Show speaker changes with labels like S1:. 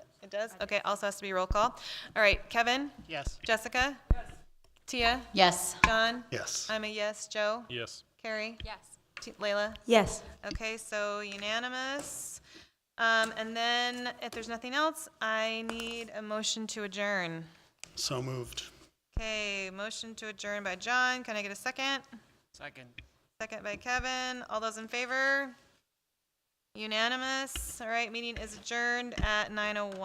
S1: does? Okay, also has to be roll call. All right, Kevin?
S2: Yes.
S1: Jessica? Tia?
S3: Yes.
S1: John?
S2: Yes.
S1: I'm a yes. Joe?
S4: Yes.
S1: Carrie?
S3: Yes.
S1: T- Layla?
S5: Yes.
S1: Okay, so unanimous. Um, and then if there's nothing else, I need a motion to adjourn.
S2: So moved.
S1: Okay, motion to adjourn by John. Can I get a second?
S2: Second.
S1: Second by Kevin. All those in favor? Unanimous. All right, meeting is adjourned at 9:01.